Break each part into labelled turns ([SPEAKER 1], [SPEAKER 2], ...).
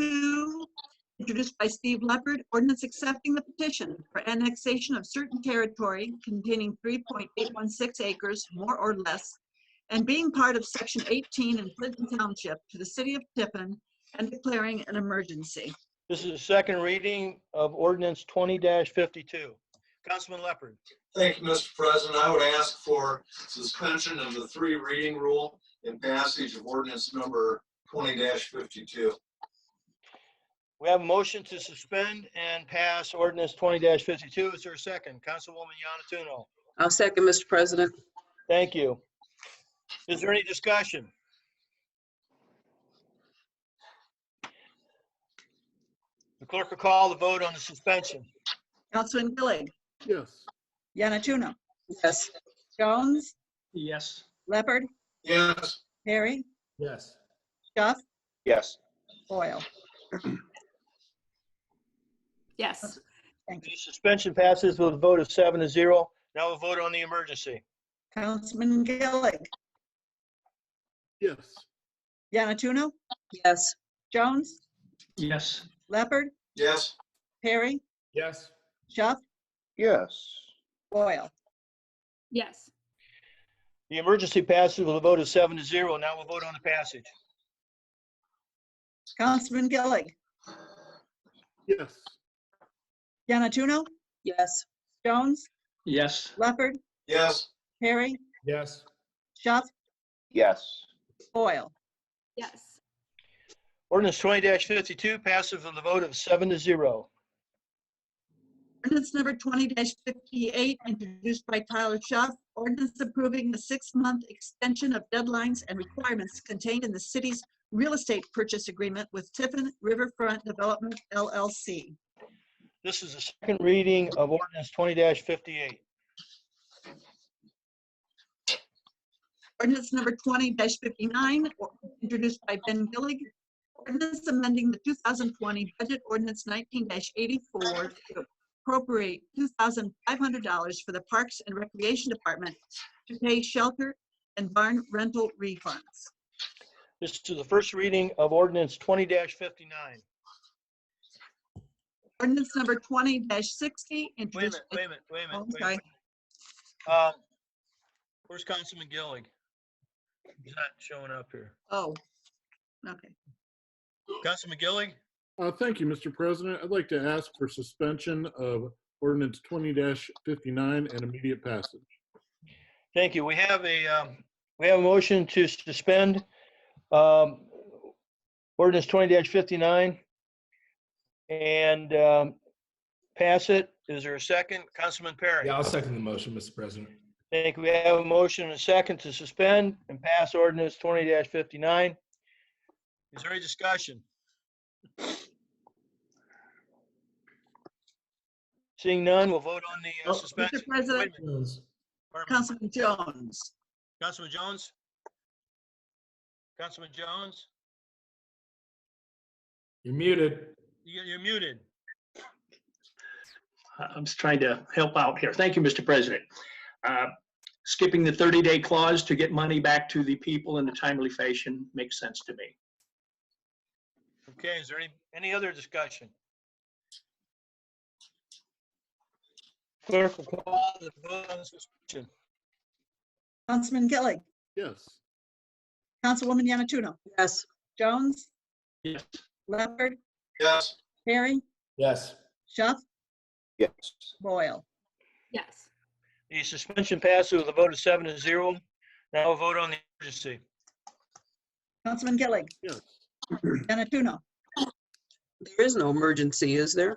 [SPEAKER 1] 20-52, introduced by Steve Leopard, ordinance accepting the petition for annexation of certain territory containing 3.816 acres, more or less, and being part of Section 18 in Clinton Township to the city of Tiffin and declaring an emergency.
[SPEAKER 2] This is the second reading of ordinance twenty fifty-two. Councilman Leopard.
[SPEAKER 3] Thank you, Mr. President. I would ask for suspension of the three reading rule and passage of ordinance number twenty fifty-two.
[SPEAKER 2] We have a motion to suspend and pass ordinance twenty fifty-two. Is there a second? Councilwoman Yanatuno.
[SPEAKER 4] I'll second, Mr. President.
[SPEAKER 2] Thank you. Is there any discussion? The clerk will call the vote on the suspension.
[SPEAKER 1] Councilman Gillig,
[SPEAKER 5] Yes.
[SPEAKER 1] Yanatuno,
[SPEAKER 4] Yes.
[SPEAKER 1] Jones,
[SPEAKER 5] Yes.
[SPEAKER 1] Leopard,
[SPEAKER 3] Yes,
[SPEAKER 1] Perry,
[SPEAKER 5] Yes.
[SPEAKER 1] Duff,
[SPEAKER 2] Yes.
[SPEAKER 1] Boyle.
[SPEAKER 6] Yes,
[SPEAKER 2] The suspension passes with a vote of seven to zero. Now we'll vote on the emergency.
[SPEAKER 1] Councilman Gillig,
[SPEAKER 5] Yes.
[SPEAKER 1] Yanatuno,
[SPEAKER 4] Yes.
[SPEAKER 1] Jones,
[SPEAKER 5] Yes.
[SPEAKER 1] Leopard,
[SPEAKER 3] yes,
[SPEAKER 1] Perry,
[SPEAKER 5] Yes.
[SPEAKER 1] Duff,
[SPEAKER 2] Yes.
[SPEAKER 1] Boyle.
[SPEAKER 6] yes,
[SPEAKER 2] The emergency passes with a vote of seven to zero. Now we'll vote on the passage.
[SPEAKER 1] Councilman Gillig,
[SPEAKER 5] Yes.
[SPEAKER 1] Yanatuno,
[SPEAKER 4] Yes.
[SPEAKER 1] Jones,
[SPEAKER 5] Yes.
[SPEAKER 1] Leopard,
[SPEAKER 3] yes,
[SPEAKER 1] Perry,
[SPEAKER 5] Yes.
[SPEAKER 1] Shuff,
[SPEAKER 2] Yes.
[SPEAKER 1] Boyle.
[SPEAKER 6] yes,
[SPEAKER 2] Ordinance twenty fifty-two passes with a vote of seven to zero.
[SPEAKER 1] Ordinance number twenty fifty-eight, introduced by Tyler Shuff, ordinance approving the six-month extension of deadlines and requirements contained in the city's real estate purchase agreement with Tiffin Riverfront Development LLC.
[SPEAKER 2] This is the second reading of ordinance twenty fifty-eight.
[SPEAKER 1] Ordinance number twenty fifty-nine, or- introduced by Ben Gillig. Ordinance amending the two thousand twenty budget ordinance nineteen eighty-four to appropriate two thousand five hundred dollars for the Parks and Recreation Department to pay shelter and barn rental refunds.
[SPEAKER 2] This is the first reading of ordinance twenty fifty-nine.
[SPEAKER 1] Ordinance number twenty sixty,
[SPEAKER 2] Wait a
[SPEAKER 1] introduced
[SPEAKER 2] minute,
[SPEAKER 1] by.
[SPEAKER 2] wait a minute, wait a
[SPEAKER 1] Oh,
[SPEAKER 2] minute.
[SPEAKER 1] I'm
[SPEAKER 2] wait a
[SPEAKER 1] sorry.
[SPEAKER 2] minute. Uh, Where's Councilman Gillig? He's not showing up here.
[SPEAKER 1] Oh, okay.
[SPEAKER 2] Councilman Gillig?
[SPEAKER 7] Uh, Thank you, Mr. President. I'd like to ask for suspension of ordinance twenty fifty-nine and immediate passage.
[SPEAKER 2] Thank you. We have a, um, we have a motion to suspend um, ordinance twenty fifty-nine and um, pass it. Is there a second? Councilman Perry?
[SPEAKER 8] Yeah, I'll second the motion, Mr. President.
[SPEAKER 2] Thank you. We have a motion and a second to suspend and pass ordinance twenty fifty-nine. Is there any discussion? Seeing none, we'll vote on the uh,
[SPEAKER 1] Oh, Mr.
[SPEAKER 2] suspension. Wait a
[SPEAKER 1] President.
[SPEAKER 2] minute. Wait a minute.
[SPEAKER 1] Councilman Jones,
[SPEAKER 2] Councilman Jones? Councilman Jones?
[SPEAKER 8] You're muted.
[SPEAKER 2] You- You're muted.
[SPEAKER 9] I- I'm just trying to help out here. Thank you, Mr. President. Uh, Skipping the 30-day clause to get money back to the people in a timely fashion makes sense to me.
[SPEAKER 2] Okay, is there any, any other discussion? Clerk will call the vote on suspension.
[SPEAKER 1] Councilman Gillig,
[SPEAKER 7] Yes.
[SPEAKER 1] Councilwoman Yanatuno,
[SPEAKER 4] Yes.
[SPEAKER 1] Jones,
[SPEAKER 9] Yes.
[SPEAKER 1] Leopard,
[SPEAKER 3] yes,
[SPEAKER 1] Perry,
[SPEAKER 8] Yes.
[SPEAKER 1] Shuff,
[SPEAKER 2] Yes.
[SPEAKER 1] Boyle.
[SPEAKER 6] yes,
[SPEAKER 2] The suspension passes with a vote of seven to zero. Now we'll vote on the emergency.
[SPEAKER 1] Councilman Gillig,
[SPEAKER 7] Yes.
[SPEAKER 1] Yanatuno.
[SPEAKER 4] There is no emergency, is there?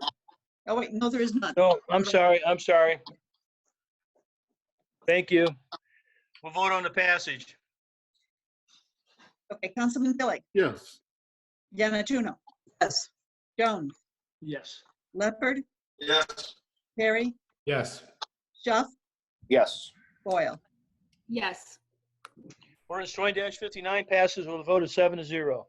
[SPEAKER 1] Oh, wait, no, there is none.
[SPEAKER 2] No, I'm sorry, I'm sorry. Thank you. We'll vote on the passage.
[SPEAKER 1] Okay, Councilman Gillig,
[SPEAKER 7] Yes.
[SPEAKER 1] Yanatuno,
[SPEAKER 4] Yes.
[SPEAKER 1] Jones,
[SPEAKER 9] Yes.
[SPEAKER 1] Leopard,
[SPEAKER 3] yes,
[SPEAKER 1] Perry,
[SPEAKER 8] Yes.
[SPEAKER 1] Shuff,
[SPEAKER 2] Yes.
[SPEAKER 1] Boyle.
[SPEAKER 6] yes,
[SPEAKER 2] Ordinance twenty fifty-nine passes with a vote of seven to zero.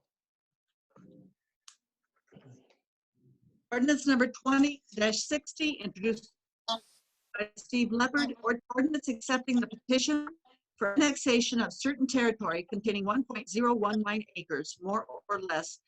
[SPEAKER 1] Ordinance number twenty sixty, introduced by Steve Leopard, or- ordinance accepting the petition for annexation of certain territory containing one point zero one nine acres, more or less,